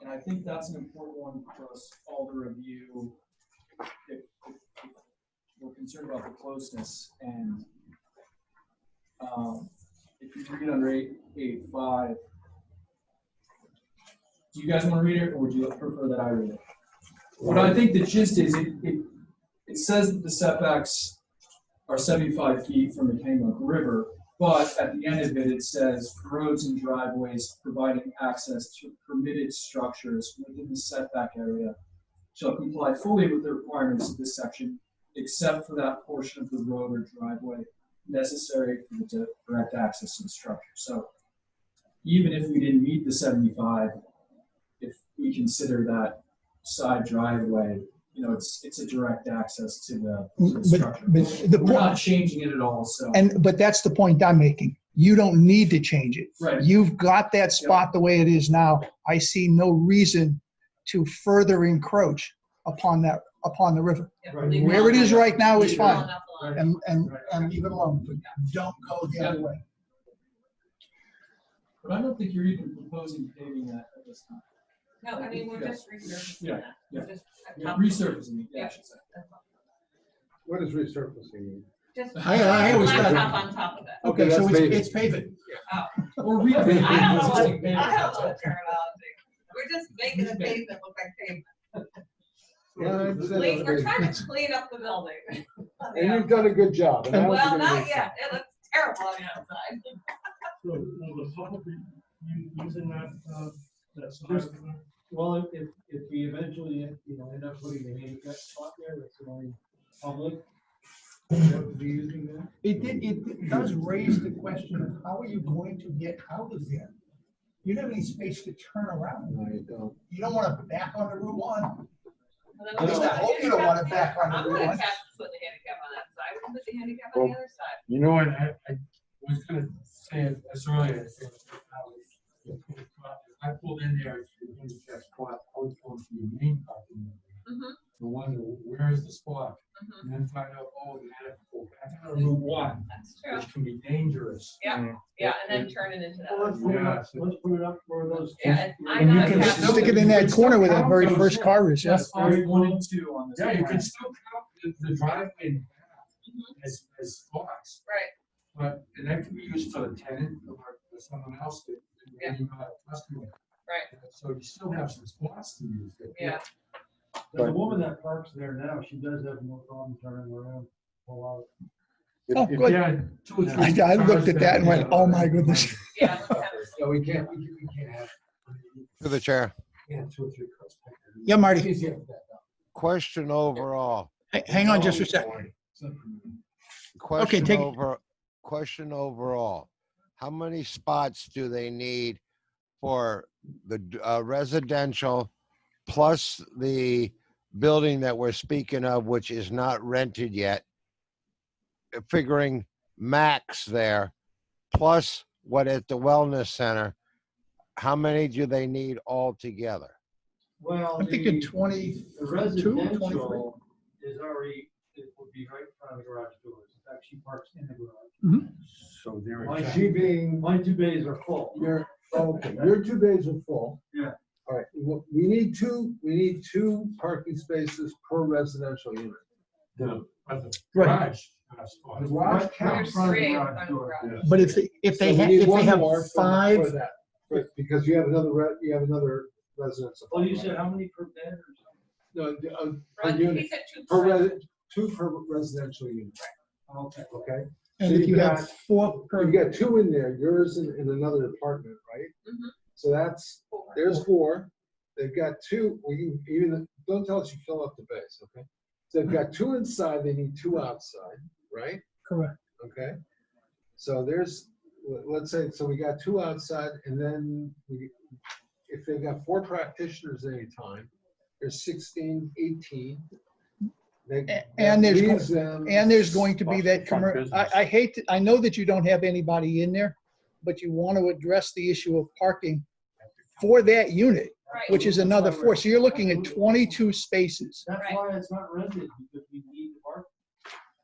And I think that's an important one for us all to review. If, if we're concerned about the closeness and, um, if you read under eight, eight, five, do you guys want to read it or would you prefer that I read it? What I think the gist is, it, it, it says that the setbacks are seventy-five feet from the Kennebunk River, but at the end of it, it says roads and driveways providing access to permitted structures within the setback area shall comply fully with the requirements of this section, except for that portion of the road or driveway necessary for the di- direct access to the structure. So even if we didn't meet the seventy-five, if we consider that side driveway, you know, it's, it's a direct access to the, to the But, structure. but the We're point, not changing it at all, so. and, but that's the point I'm making. You don't need to change it. Right. You've got that spot the way it is now. I see no reason to further encroach upon that, upon the river. Where it is right now is fine. And, and, and leave it alone, but don't go the other way. But I don't think you're even proposing paving that at this time. No, I mean, we're just researching. Yeah, that. yeah. We're just- You're Resurfacing it, yeah, I should say. What is resurfacing mean? Just- I- I always Blacktop thought- On top of it. Okay, so it's- it's paving. Or we. I don't know I don't know what, Existing pavement. I don't know what terminology. We're just making the pavement look like pavement. Yeah, I understand. Clean- We're trying to clean up the building. And you've done a good job. and I don't Well, think it not is. yet. It looks terrible on the outside. Will will the public be u- using that, uh, that There's- sign? Well, if- if, if we eventually, you know, end up putting the handicap spot there, that's the only public. that would Be using that. It did, it does raise the question of how are you going to get out of there? You don't have any space to turn around. No, you don't. You don't want to back on the Route One. And I then just hope you don't want it back on the I'm gonna road. have to put the handicap on that side. We'll put the handicap on the other side. You know, and I, I was gonna say it as earlier. I think, how it- I pulled in there, to the handicap spot, I was going to the main parking lot, Mhm, to wonder, where is the spot? mhm. And then find out, oh, they had to go back on Route One, That's true. which can be dangerous. Yeah, yeah, and then turn it into that. Uh, Let's put it up, let's put it up for those. Yeah, and I And you know. can it's- still- Stick it in that corner where that very first car is. Just R one and two on this. Yeah, you plan. can still count the- the driveway in the back Mm-hmm. as, as spots. Right, But and that can be used for the tenant or for someone else that, that you're not a customer. Right. So you still have some spots to use. but- yeah. The woman that parks there now, she does have no problem turning around, pull out. Oh, If- if- good. Yeah. two or I, three I looked at cars that and went, there. oh my goodness. Yeah, let's have it. So we can't, we we can't have. uh, To the chair, Yeah, two or three cars. back there. Yeah, Marty. It's easier for that, though. question overall, H- Hang on just for a second. question take- over, question overall. How many spots do they need for the d- uh, residential plus the building that we're speaking of, which is not rented yet? Uh, Figuring max there, plus what at the wellness center, how many do they need altogether? Well, I'm thinking 20 The 23. residential is already, it would be right in front of the garage doors. In fact, she parks in the garage. So there. My it's- She being, My two bays are full. your, okay, your two bays are full. Yeah. All right, wh- we need two, we need two parking spaces per residential unit. The, but the Right. garage. uh, spot. The garage Right in counts. front of the Three in garage front of the door. garage. But if, if So they we have, need if one they have more for- for five, that. Right, Because you have another, re- you have another residence. Well, you apartment. said how many per bed or something? No, the, uh, Right, unit. he said two per percent. res, two per residential unit, Okay. okay? and if you have four per, You've got two in there, yours and, and another apartment, right? Mm-hmm. Mhm. So that's, there's four, they've got two, well, you, even, don't tell us you fill up the base, okay? So they've got two inside, they need two outside, right? correct. Okay? So there's, let- let's say, so we got two outside, and then we, if they've got four practitioners at any time, there's 16, 18. They- A- and there's that go- leaves them- And there's going to be that Fuck commercial, I, business. I hate, to- I know that you don't have anybody in there, but you want to address the issue of parking for that unit, Right. which is another four. So you're looking at twenty-two spaces. That's Right. why it's not rented, because we need the park.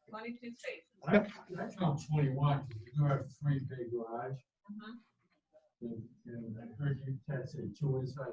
Twenty-two spaces. I I count twenty-one, because you do have three big garage, Mhm. and, and I heard you guys say two inside,